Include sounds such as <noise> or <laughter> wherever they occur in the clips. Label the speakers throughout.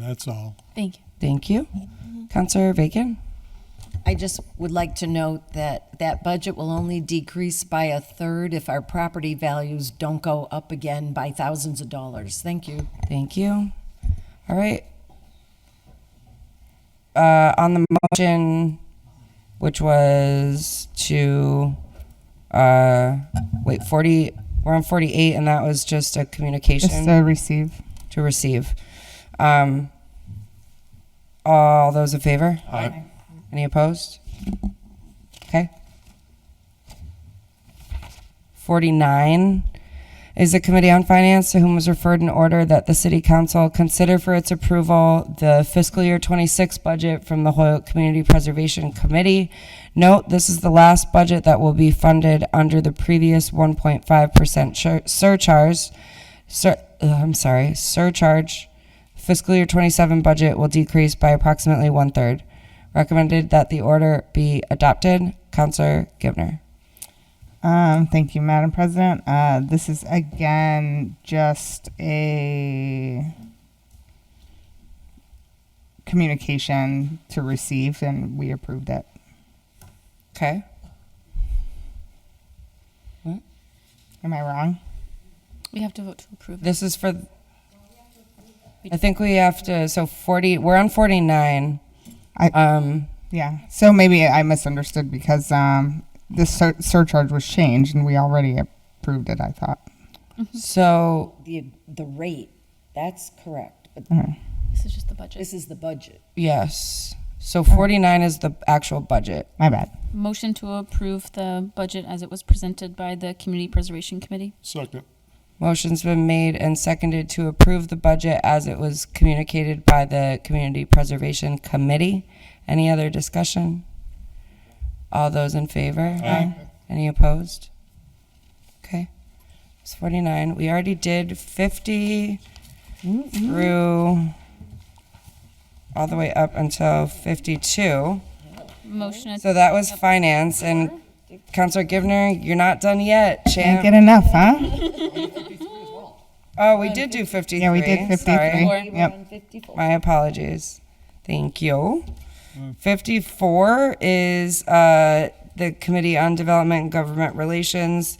Speaker 1: That's all.
Speaker 2: Thank you.
Speaker 3: Thank you. Counselor Bacon?
Speaker 4: I just would like to note that that budget will only decrease by a third if our property values don't go up again by thousands of dollars. Thank you.
Speaker 3: Thank you. All right. Uh, on the motion, which was to, uh, wait, forty, we're on forty-eight, and that was just a
Speaker 5: Just
Speaker 3: communication
Speaker 5: to receive.
Speaker 3: to receive. Um, all those in favor?
Speaker 1: Aye.
Speaker 3: Any opposed? Okay. Forty-nine is the Committee on Finance, to whom was referred an order that the City Council consider for its approval the fiscal year twenty-six budget from the Hoyok Community Preservation Committee. Note, this is the last budget that will be funded under the previous one point five percent surcharge. Sur, ugh, I'm sorry, surcharge. Fiscal year twenty-seven budget will decrease by approximately one-third. Recommended that the order be adopted. Counselor Givner.
Speaker 5: Um, thank you, Madam President. Uh, this is again just a communication to receive, and we approved it.
Speaker 3: Okay.
Speaker 5: Am I wrong?
Speaker 2: We have to vote to approve.
Speaker 3: This is for, I think we have to, so 40, we're on 49.
Speaker 5: I-
Speaker 3: Um,
Speaker 5: Yeah. So maybe I misunderstood because um, the sur- surcharge was changed, and we already approved it. I thought.
Speaker 3: so,
Speaker 4: The, the rate, that's correct, but
Speaker 5: Mm-hmm.
Speaker 2: This is just the budget.
Speaker 4: this is the budget.
Speaker 3: yes. So 49 is the actual budget.
Speaker 5: My bad.
Speaker 2: Motion to approve the budget as it was presented by the Community Preservation Committee.
Speaker 1: Second.
Speaker 3: Motion's been made and seconded to approve the budget as it was communicated by the Community Preservation Committee. Any other discussion? All those in favor? Aye. Any opposed? Okay. It's 49. We already did 50
Speaker 5: Mm-hmm.
Speaker 3: through, all the way up until 52.
Speaker 2: Motion,
Speaker 3: So that was finance, and Counselor Givner, you're not done yet,
Speaker 5: Can't
Speaker 3: champ.
Speaker 5: get enough, huh?
Speaker 3: Oh, we did do 53.
Speaker 5: Yeah, we did
Speaker 3: Sorry.
Speaker 5: fifty-three. Yep.
Speaker 3: My apologies. Thank you. 54 is uh, the Committee on Development and Government Relations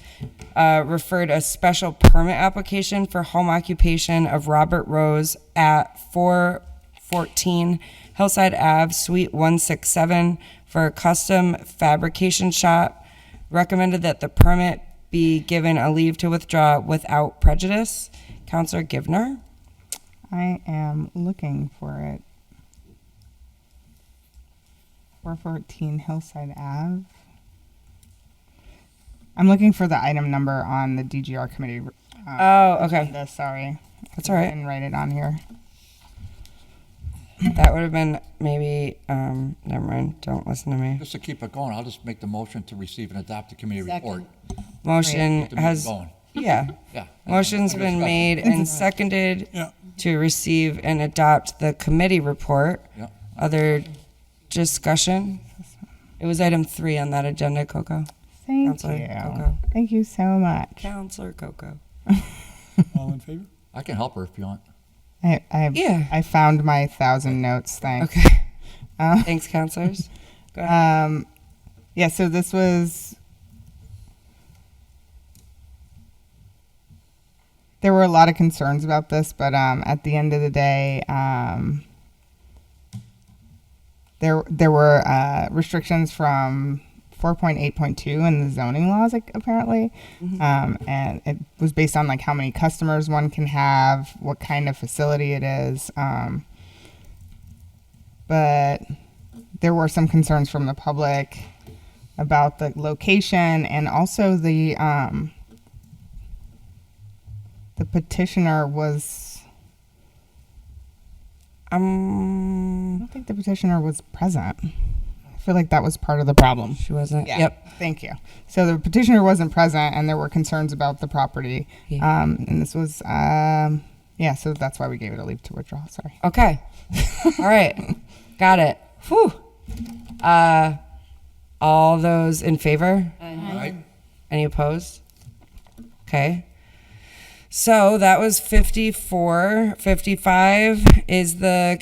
Speaker 3: uh, referred a special permit application for home occupation of Robert Rose at 414 Hillside Ave, Suite 167, for a custom fabrication shop. Recommended that the permit be given a leave to withdraw without prejudice. Counselor Givner?
Speaker 5: I am looking for it. 414 Hillside Ave. I'm looking for the item number on the DGR committee. uh,
Speaker 3: Oh, okay.
Speaker 5: agenda, sorry.
Speaker 3: That's all right.
Speaker 5: And write it on here.
Speaker 3: That would have been maybe, um, never mind, don't listen to me.
Speaker 6: Just to keep it going, I'll just make the motion to receive and adopt the committee report.
Speaker 3: Motion
Speaker 6: Keep the meeting
Speaker 3: Mm, has,
Speaker 6: going.
Speaker 3: yeah.
Speaker 6: <laughs> Yeah.
Speaker 3: Motion's
Speaker 6: Under
Speaker 3: been
Speaker 6: discussion.
Speaker 3: made and seconded
Speaker 1: Yeah.
Speaker 3: to receive and adopt the committee report.
Speaker 6: Yeah.
Speaker 3: Other discussion? It was item three on that agenda, Coco.
Speaker 5: Thank
Speaker 3: Counselor
Speaker 5: you.
Speaker 3: Coco.
Speaker 5: Thank you so much.
Speaker 3: Counselor Coco.
Speaker 1: All in favor?
Speaker 6: I can help her if you want.
Speaker 5: I, I,
Speaker 3: Yeah.
Speaker 5: I found my thousand notes thing.
Speaker 3: Okay,
Speaker 5: Uh,
Speaker 3: thanks,
Speaker 6: <laughs>
Speaker 3: counselors. Go ahead.
Speaker 5: Um, yeah, so this was. There were a lot of concerns about this, but um, at the end of the day, um, there there were uh, restrictions from 4.8.2 in the zoning laws, like, apparently, um, and it was based on like how many customers one can have, what kind of facility it is. Um, but there were some concerns from the public about the location and also the um, the petitioner was I
Speaker 3: Um,
Speaker 5: don't think the petitioner was present. I feel like that was part of the problem.
Speaker 3: she wasn't,
Speaker 5: Yeah.
Speaker 3: yep.
Speaker 5: Thank you. So the petitioner wasn't present, and there were concerns about the property.
Speaker 3: Yeah.
Speaker 5: Um, and this was, um, yeah. So that's why we gave it a leave to withdraw. Sorry.
Speaker 3: Okay. <laughs> all right. Got it. Whew. Uh, all those in favor?
Speaker 6: All right.
Speaker 3: Any opposed? Okay. So that was 54. 55 is the